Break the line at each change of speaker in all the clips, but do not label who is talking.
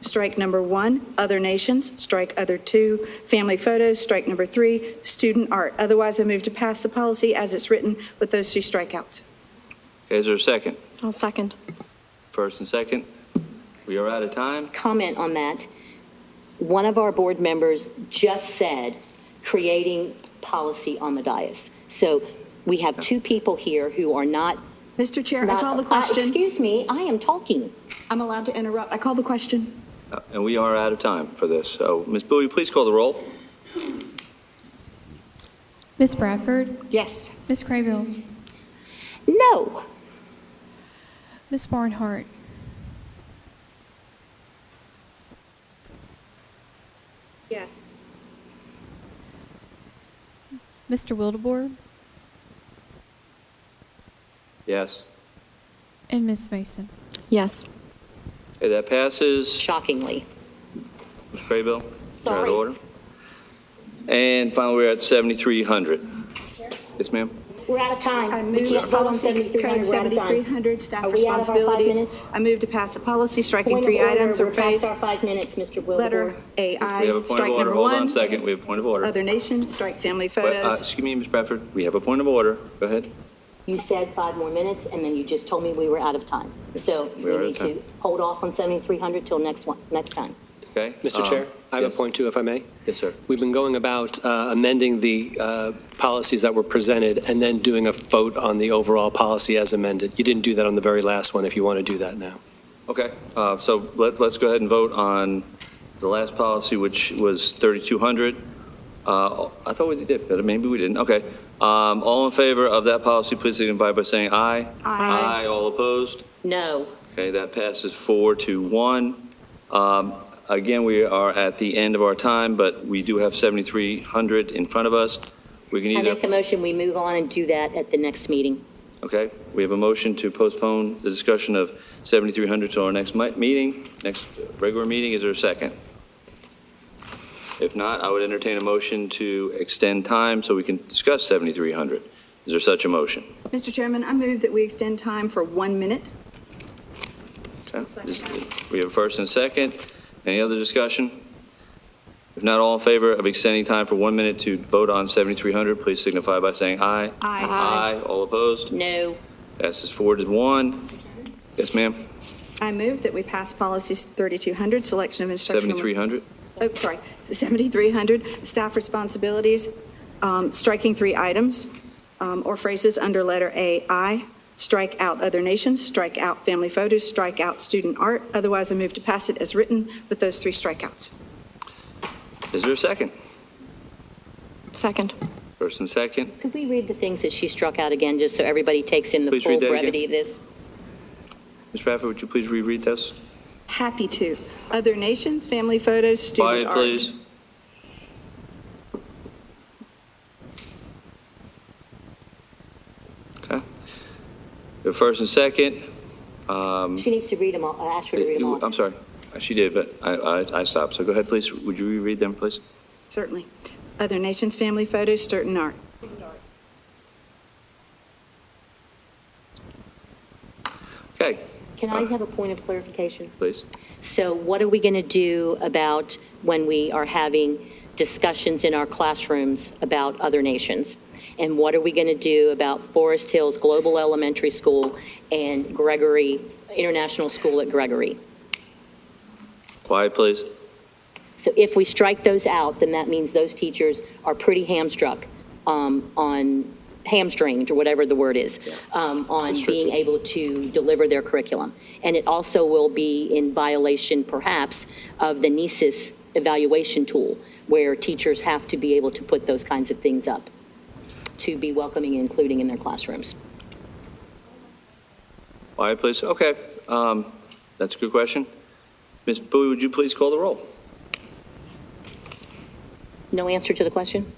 strike number one, other nations, strike other two, family photos, strike number three, student art. Otherwise, I move to pass the policy as it's written with those three strikeouts.
Okay, is there a second?
I'll second.
First and second? We are out of time.
comment on that. One of our board members just said, creating policy on the dais. So we have two people here who are not.
Mr. Chair, I
not-
call the
uh,
question.
Excuse me, I am talking.
I'm allowed to interrupt. I call the question.
Uh, And we are out of time for this. So, Ms. Bowie, please call the roll.
Miss Bradford,
Yes.
Miss Craybill,
No,
Miss Barnhart,
Yes.
Mr. Wildebohr,
Yes.
and Miss Mason.
Yes.
Okay, that passes.
shockingly.
Ms. Craybill? you're out
Sorry.
of order. And finally, we're at 7,300. Yes, ma'am?
We're out of time.
I
We
move
can't vote on
policy code
7300. We're out of time.
7300,
Are
staff
we out of our five
responsibilities.
minutes?
I move to pass the policy, striking
Point
three
of order,
items
we're
or
past
phrase.
our five minutes, Mr. Wilbur.
Letter
We have a
AI,
point of
strike
order.
number
Hold on a
one, uh,
second. We have a point of order.
other nations, strike family
But, uh,
photos.
Excuse me, Ms. Bradford, we have a point of order. Go ahead.
You said five more minutes, and then you just told me we were out of time. So
we
we
are out of
need to
time.
hold off on 7,300 till next one, next time.
Okay?
Mr.
Um,
Chair, I have
yes.
a point too, if I may.
Yes, sir.
We've been going about uh, amending the uh, policies that were presented and then doing a vote on the overall policy as amended. You didn't do that on the very last one, if you want to do that now.
Okay, uh, so let, let's go ahead and vote on the last policy, which was 3,200. Uh, I thought we did, but maybe we didn't. Okay. Um, All in favor of that policy, please signify by saying aye.
Aye.
All opposed?
No.
Okay, that passes four to one. Um, Again, we are at the end of our time, but we do have 7,300 in front of us. We can
I
either,
make a motion, we move on and do that at the next meeting.
okay, we have a motion to postpone the discussion of 7,300 to our next mi- meeting, next regular meeting. Is there a second? If not, I would entertain a motion to extend time so we can discuss 7,300. Is there such a motion?
Mr. Chairman, I move that we extend time for one minute.
Okay. We have a first and a second. Any other discussion? If not, all in favor of extending time for one minute to vote on 7,300, please signify by saying aye. Aye. All opposed?
No.
Passes four to one. Yes, ma'am.
I move that we pass policies 3200, selection of instructional.
7,300?
Oh, sorry, 7300, staff responsibilities, um, striking three items um, or phrases under letter AI, strike out other nations, strike out family photos, strike out student art. Otherwise, I move to pass it as written with those three strikeouts.
Is there a second?
Second.
First and second.
Could we read the things that she struck out again, just so everybody takes in the
Please
full
read that again.
brevity of this?
Ms. Bradford, would you please reread this?
Happy to. Other nations, family photos, student
Quiet,
art.
please. Okay. The first and second. Um,
She needs to read them all, I asked her to read them all.
I'm sorry, Uh, she did, but I, I- I stopped, so go ahead, please, would you reread them, please?
Certainly. Other nations, family photos, student art.
Okay,
Can I have a point of clarification?
please.
So what are we going to do about when we are having discussions in our classrooms about other nations? And what are we going to do about Forest Hills Global Elementary School and Gregory, International School at Gregory?
Quiet, please.
So if we strike those out, then that means those teachers are pretty hamstruck um, on, hamstringed, or whatever the word is, um, on being
Restricted.
able to deliver their curriculum. And it also will be in violation perhaps of the NESIS evaluation tool, where teachers have to be able to put those kinds of things up to be welcoming and including in their classrooms.
Quiet, please, okay, um, that's a good question. Ms. Bowie, would you please call the roll?
No answer to the question?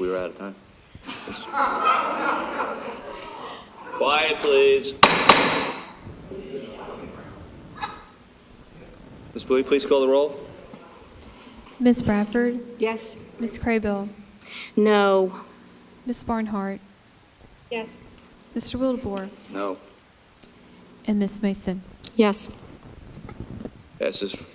We were out of time. Quiet, please. Ms. Bowie, please call the roll?
Miss Bradford,
Yes.
Miss Craybill,
No.
Miss Barnhart.
Yes.
Mr. Wildebohr
No.
and Miss Mason.
Yes.
Passes